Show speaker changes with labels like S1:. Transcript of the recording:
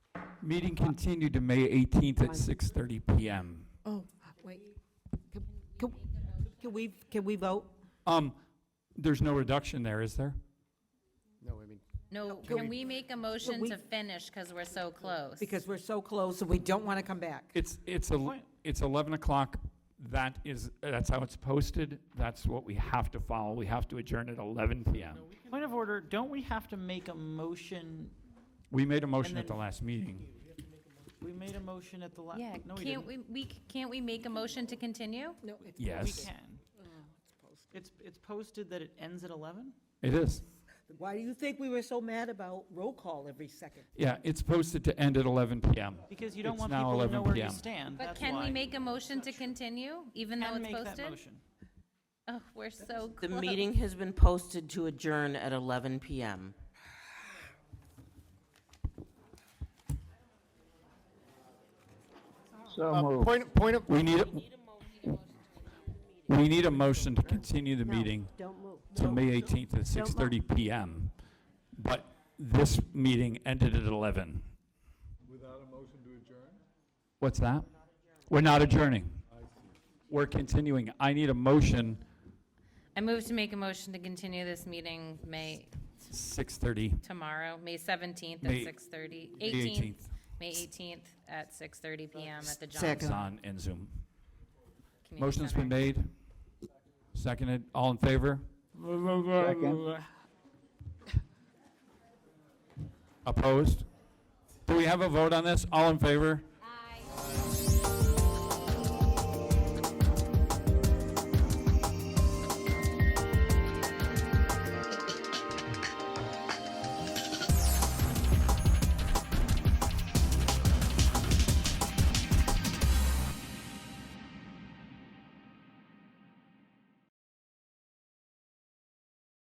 S1: Meeting continued to May 18th at 6:30 PM.
S2: Oh, wait. Can- Can can we, can we vote?
S1: Um, there's no reduction there, is there?
S3: No, I mean,
S4: No, can we make a motion to finish because we're so close?
S2: Because we're so close and we don't want to come back.
S1: It's, it's, el- it's 11 o'clock. That is, that's how it's posted. That's what we have to follow. We have to adjourn at 11 PM.
S5: Point of order, don't we have to make a motion?
S1: We made a motion
S5: And
S1: at the
S5: then-
S1: last meeting.
S5: We made a motion at the last.
S4: Yeah,
S5: no, we
S4: can't
S5: didn't.
S4: we, we, c- can't we make a motion to continue?
S2: No.
S5: We
S1: Yes,
S5: can. It's, it's posted that it ends at 11?
S1: it is.
S2: Why do you think we were so mad about roll call every second?
S1: Yeah, it's posted to end at 11 PM.
S5: Because you don't
S1: It's
S5: want
S1: now
S5: people to
S1: 11
S5: know where
S1: PM.
S5: you stand,
S4: But
S5: that's
S4: can we
S5: why.
S4: make a motion to continue, even though
S5: Can
S4: it's
S5: make that
S4: posted?
S5: motion.
S4: Oh, we're so
S6: The
S4: close.
S6: meeting has been posted to adjourn at 11 PM.
S3: uh, point, point of,
S1: We need, a- we need a motion to continue the meeting
S7: Don't move.
S1: to May 18th at 6:30 PM. But this meeting ended at 11. Without a motion to adjourn? What's that? We're not adjourning. We're continuing. I need a motion,
S4: I move to make a motion to continue this meeting May,
S1: 6:30,
S4: tomorrow, May seventeenth at
S1: May-
S4: six thirty.
S1: May
S4: Eighteenth,
S1: 18th.
S4: May eighteenth at six thirty PM at the
S1: It's
S4: Johnson
S1: on and Zoom.
S4: Community
S1: Motion's been
S4: Center.
S1: made, seconded, all in favor? Opposed? Do we have a vote on this? All in favor?